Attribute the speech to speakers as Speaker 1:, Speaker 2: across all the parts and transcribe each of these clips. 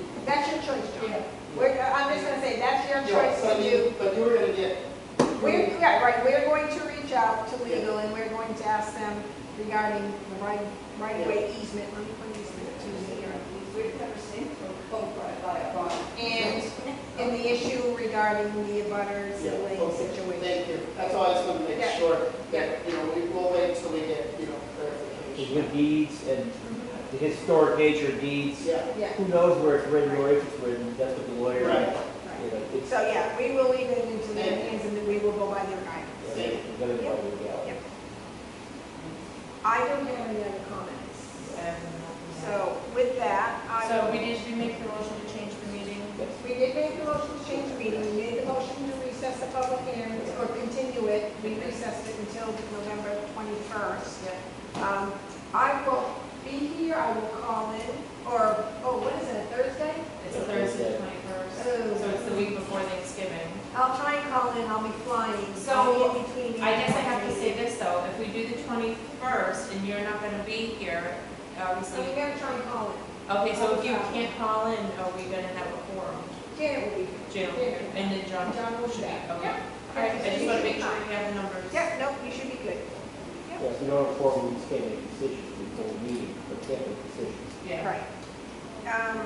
Speaker 1: uh, your
Speaker 2: Yeah,
Speaker 1: choice
Speaker 2: so
Speaker 1: to
Speaker 2: you,
Speaker 1: do.
Speaker 2: but you were gonna get.
Speaker 1: We're, yeah, right, we're going to reach out to legal and we're going to ask them regarding the right, right of way easement, let me put easement to here.
Speaker 3: We've never seen it from Cove right by a barn.
Speaker 1: And, and the issue regarding the abutters
Speaker 2: Yeah,
Speaker 1: and lane
Speaker 2: okay,
Speaker 1: situation.
Speaker 2: Thank you. That's all I just wanted to make
Speaker 1: Yeah.
Speaker 2: sure that, you know, we will wait until we get, you know, clarification.
Speaker 4: With deeds and the historic nature of deeds,
Speaker 2: Yeah,
Speaker 1: Yeah,
Speaker 4: who knows where it's written or if it's written, that's what the lawyer.
Speaker 2: right.
Speaker 4: You
Speaker 1: right.
Speaker 4: know, it's.
Speaker 1: So, yeah, we will leave it into their hands and then we will go by their guidance.
Speaker 4: it's gonna be like a gallery.
Speaker 1: I don't have any other comments. So with that, I.
Speaker 5: So we need to make the motion to change the meeting.
Speaker 4: That's-
Speaker 1: We did make the motion to change the meeting, we made the motion to recess the public hearing, or continue it, we recessed it until November 21st. Um, I will be here, I will call in, or, oh, what is it, Thursday?
Speaker 5: It's Thursday, twenty-first,
Speaker 3: Oh.
Speaker 5: so it's the week before Thanksgiving.
Speaker 1: I'll try and call in, I'll be flying, so
Speaker 5: So,
Speaker 1: I'll be in between.
Speaker 5: I guess I have to say this though, if we do the twenty-first and you're not gonna be here,
Speaker 1: So
Speaker 5: obviously,
Speaker 1: we gotta try and call in.
Speaker 5: okay, so if you can't call in, are we gonna have a forum?
Speaker 1: Janet will be
Speaker 5: Jim,
Speaker 1: Yeah.
Speaker 5: and then John?
Speaker 1: here, John will be
Speaker 5: Should be,
Speaker 1: back.
Speaker 5: okay. All right, I just wanna make sure we have the numbers.
Speaker 1: Yep, no, you should be good.
Speaker 4: Yeah, so in order for we can't make decisions before the meeting, but can't make decisions.
Speaker 5: Yeah.
Speaker 1: Right. Um,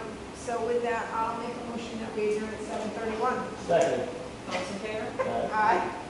Speaker 1: So with that, I'll make a motion that we adjourn at 7:31.
Speaker 4: Second,
Speaker 5: All in favor?
Speaker 4: uh,
Speaker 1: Aye.